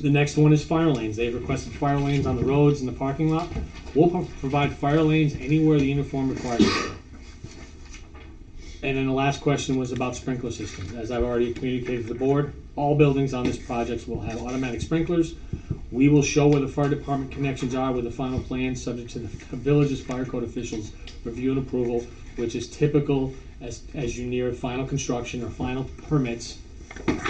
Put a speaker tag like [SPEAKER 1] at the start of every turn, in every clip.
[SPEAKER 1] The next one is fire lanes. They've requested fire lanes on the roads and the parking lot. We'll pro- provide fire lanes anywhere the uniform requires. it. And then the last question was about sprinkler systems. As I've already communicated to the board, all buildings on this project will have automatic sprinklers. We will show where the fire department connections are with the final plan, subject to the village's fire code officials review and approval, which is typical as, as you near final construction or final permits.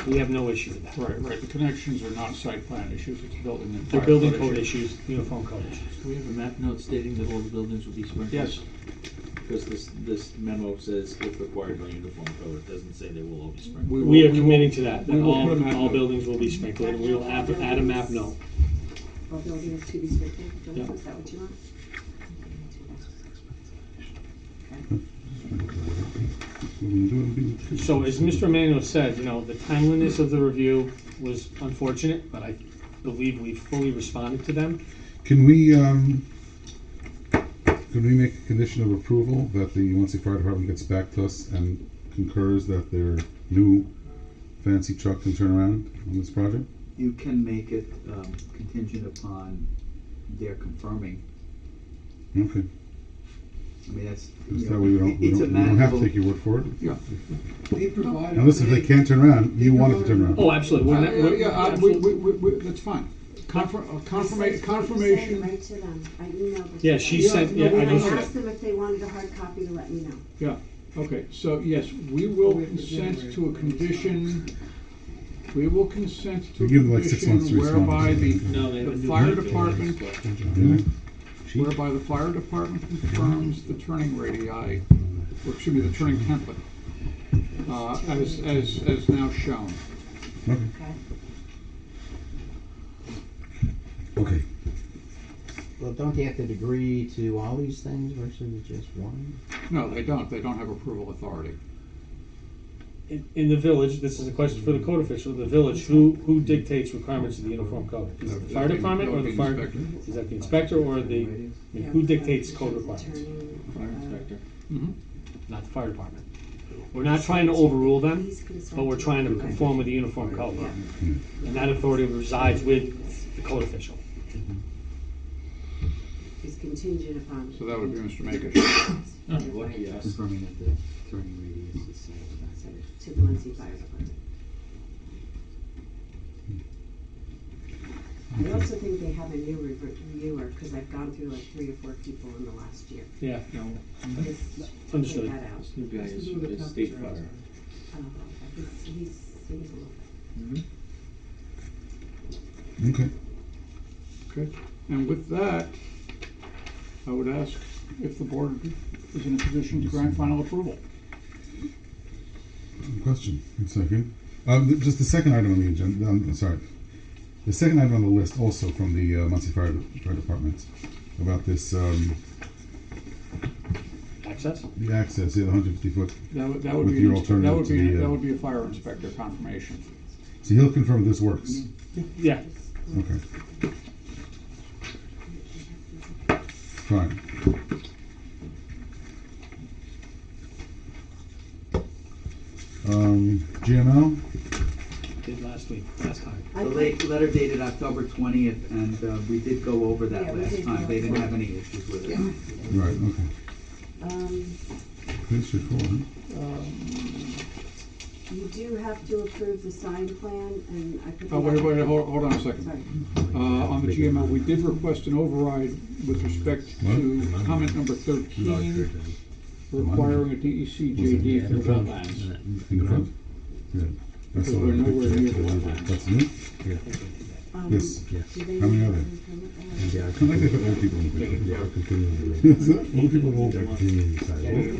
[SPEAKER 1] We have no issue with that.
[SPEAKER 2] Right, right, the connections are not site plan issues, it's building and.
[SPEAKER 1] They're
[SPEAKER 2] fire
[SPEAKER 1] building code issues, uniform code issues.
[SPEAKER 3] Do we have a map note stating that all the buildings will be sprinkled?
[SPEAKER 2] Yes,
[SPEAKER 3] Because this, this memo says if required by uniform code, it doesn't say they will all be sprinkled.
[SPEAKER 2] we will.
[SPEAKER 1] We are
[SPEAKER 2] will-
[SPEAKER 1] committing to that, that
[SPEAKER 2] we will
[SPEAKER 1] all,
[SPEAKER 2] put a map
[SPEAKER 1] all
[SPEAKER 2] note.
[SPEAKER 1] buildings will be sprinkled, and we will add, add a map note.
[SPEAKER 4] All buildings to be sprinkled,
[SPEAKER 1] Yeah.
[SPEAKER 4] is that what you want?
[SPEAKER 1] So as Mr. Emanuel said, you know, the timeliness of the review was unfortunate, but I believe we fully responded to them.
[SPEAKER 5] Can we, um, can we make a condition of approval that the Muncie Fire Department gets back to us and concurs that their new fancy truck can turn around on this project?
[SPEAKER 6] You can make it um, contingent upon their confirming.
[SPEAKER 5] Okay,
[SPEAKER 6] I mean, that's.
[SPEAKER 5] because
[SPEAKER 6] you
[SPEAKER 5] that
[SPEAKER 6] know,
[SPEAKER 5] way we
[SPEAKER 6] it-
[SPEAKER 5] don't, we
[SPEAKER 6] it's a
[SPEAKER 5] don't, we don't have to
[SPEAKER 6] manageable-
[SPEAKER 5] take your word for it.
[SPEAKER 7] They provided.
[SPEAKER 5] Now listen, if they can't turn around, you want it to turn around.
[SPEAKER 1] Oh, absolutely, we're
[SPEAKER 2] Uh,
[SPEAKER 1] not,
[SPEAKER 2] Yeah,
[SPEAKER 1] we're,
[SPEAKER 2] yeah, uh, we, we, we, we- that's fine. Confirm,
[SPEAKER 4] I
[SPEAKER 2] confirmation,
[SPEAKER 4] sent- I sent it
[SPEAKER 2] confirmation,
[SPEAKER 4] right to them, um, I emailed it. to
[SPEAKER 1] yeah,
[SPEAKER 4] them.
[SPEAKER 1] she
[SPEAKER 2] Yeah,
[SPEAKER 1] sent,
[SPEAKER 2] no,
[SPEAKER 1] yeah,
[SPEAKER 2] we
[SPEAKER 1] I
[SPEAKER 4] And I
[SPEAKER 1] just
[SPEAKER 2] don't have-
[SPEAKER 1] said,
[SPEAKER 4] asked them if they wanted a hard copy to let me know.
[SPEAKER 2] okay, so yes, we will
[SPEAKER 7] We have to
[SPEAKER 2] consent
[SPEAKER 7] generate
[SPEAKER 2] to a condition, we will consent to a
[SPEAKER 5] We give them like six months to
[SPEAKER 2] condition
[SPEAKER 5] respond.
[SPEAKER 2] whereby the,
[SPEAKER 3] No,
[SPEAKER 2] the
[SPEAKER 3] they haven't done
[SPEAKER 2] fire
[SPEAKER 3] that.
[SPEAKER 2] department,
[SPEAKER 5] Really?
[SPEAKER 2] whereby the fire department confirms the turning radii, or excuse me, the turning template, uh, as, as, as now shown.
[SPEAKER 5] Okay. Okay,
[SPEAKER 8] Well, don't they have to agree to all these things versus just one?
[SPEAKER 2] No, they don't, they don't have approval authority.
[SPEAKER 1] in, in the village, this is a question for the code official, the village, who, who dictates requirements of the uniform code? Is it the fire
[SPEAKER 2] That would be-
[SPEAKER 1] department
[SPEAKER 2] that
[SPEAKER 1] or
[SPEAKER 2] would
[SPEAKER 1] the
[SPEAKER 2] be
[SPEAKER 1] fire,
[SPEAKER 2] inspector.
[SPEAKER 1] is that the inspector or the, I mean, who dictates code requirements?
[SPEAKER 4] uh,
[SPEAKER 3] Fire inspector.
[SPEAKER 1] Not the fire department. We're not trying to overrule them.
[SPEAKER 4] He's concerned.
[SPEAKER 1] But we're trying to conform with the uniform code. And that authority resides with the code official.
[SPEAKER 4] He's contingent upon.
[SPEAKER 2] So that would be Mr. Makish.
[SPEAKER 3] Lucky us.
[SPEAKER 6] Confirming that the turning radius is safe.
[SPEAKER 4] I sent it To the Muncie Fire Department. I also think they have a new rever- reviewer, cause I've gone through like three or four people in the last year.
[SPEAKER 1] Yeah.
[SPEAKER 3] No,
[SPEAKER 4] Just
[SPEAKER 1] Understood.
[SPEAKER 4] Take that out.
[SPEAKER 3] this new guy is,
[SPEAKER 7] This is what
[SPEAKER 3] is
[SPEAKER 7] the
[SPEAKER 3] state
[SPEAKER 7] company
[SPEAKER 3] fire.
[SPEAKER 4] Oh, he's, he's, he's a little.
[SPEAKER 5] okay.
[SPEAKER 2] Okay, and with that, I would ask if the board is in a position to grant final approval.
[SPEAKER 5] Question, one second. Um, th- just the second item on the agenda, um, I'm sorry. The second item on the list also from the uh, Muncie Fire, Fire Department about this, um,
[SPEAKER 1] Access?
[SPEAKER 5] the access, yeah, the hundred fifty foot.
[SPEAKER 2] That would, that would
[SPEAKER 5] With
[SPEAKER 2] be, an
[SPEAKER 5] your
[SPEAKER 2] ins- that would
[SPEAKER 5] alternative to
[SPEAKER 2] be,
[SPEAKER 5] the, uh,
[SPEAKER 2] that would be a fire inspector confirmation.
[SPEAKER 5] So he'll confirm this works.
[SPEAKER 1] Yeah.
[SPEAKER 5] Okay. Fine. Um, GML,
[SPEAKER 1] Did last week, last time.
[SPEAKER 6] The late, letter dated October twentieth, and uh, we did go over that last time, they didn't have any issues with it.
[SPEAKER 5] right, okay.
[SPEAKER 4] Um,
[SPEAKER 5] Pretty straightforward. huh?
[SPEAKER 2] Uh,
[SPEAKER 4] you do have to approve the sign plan and I put.
[SPEAKER 2] Oh, wait,
[SPEAKER 4] the-
[SPEAKER 2] wait, hold, hold on a
[SPEAKER 4] Sorry.
[SPEAKER 2] second. Uh, on the GML, we did request an override with respect to comment number thirteen, requiring a E DEC JD for wetlands.
[SPEAKER 5] In the front? Yeah. I saw
[SPEAKER 2] We're
[SPEAKER 5] that
[SPEAKER 2] nowhere
[SPEAKER 5] picture.
[SPEAKER 2] near the wetlands.
[SPEAKER 5] That's new?
[SPEAKER 4] Um,
[SPEAKER 5] Yes.
[SPEAKER 4] do they
[SPEAKER 5] How many
[SPEAKER 4] need
[SPEAKER 5] are there?
[SPEAKER 4] a permit? I don't know.
[SPEAKER 5] I like they put old people in the picture. Is it? Old people, old people.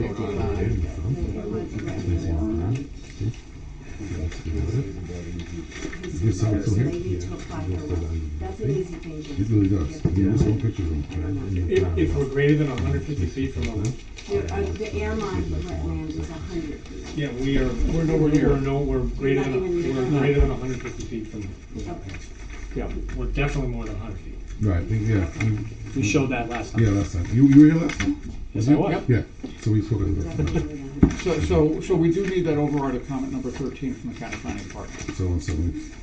[SPEAKER 4] His
[SPEAKER 5] Yes, I'm
[SPEAKER 4] so
[SPEAKER 5] here.
[SPEAKER 4] they need to apply for one. That's an easy thing,
[SPEAKER 5] It
[SPEAKER 4] Jim.
[SPEAKER 5] really does. I mean, this whole picture is old.
[SPEAKER 1] If, if we're greater than hundred fifty feet from the,
[SPEAKER 4] There are- uh, The airline wetland is a hundred feet.
[SPEAKER 1] yeah, we are, we're nowhere near, we're no, we're greater than, we're greater than hundred fifty feet from the wetlands.
[SPEAKER 2] Yeah,
[SPEAKER 1] We're definitely more than hundred feet.
[SPEAKER 5] Right, yeah, we-
[SPEAKER 1] We showed that last
[SPEAKER 5] yeah,
[SPEAKER 1] time.
[SPEAKER 5] last time. You, you were here last time?
[SPEAKER 1] Yes, I was.
[SPEAKER 5] Yeah, so we spoke about
[SPEAKER 4] Definitely
[SPEAKER 5] that.
[SPEAKER 4] within a hundred.
[SPEAKER 2] so, so, so we do need that override of comment number thirteen from the county planning department.
[SPEAKER 5] So and so.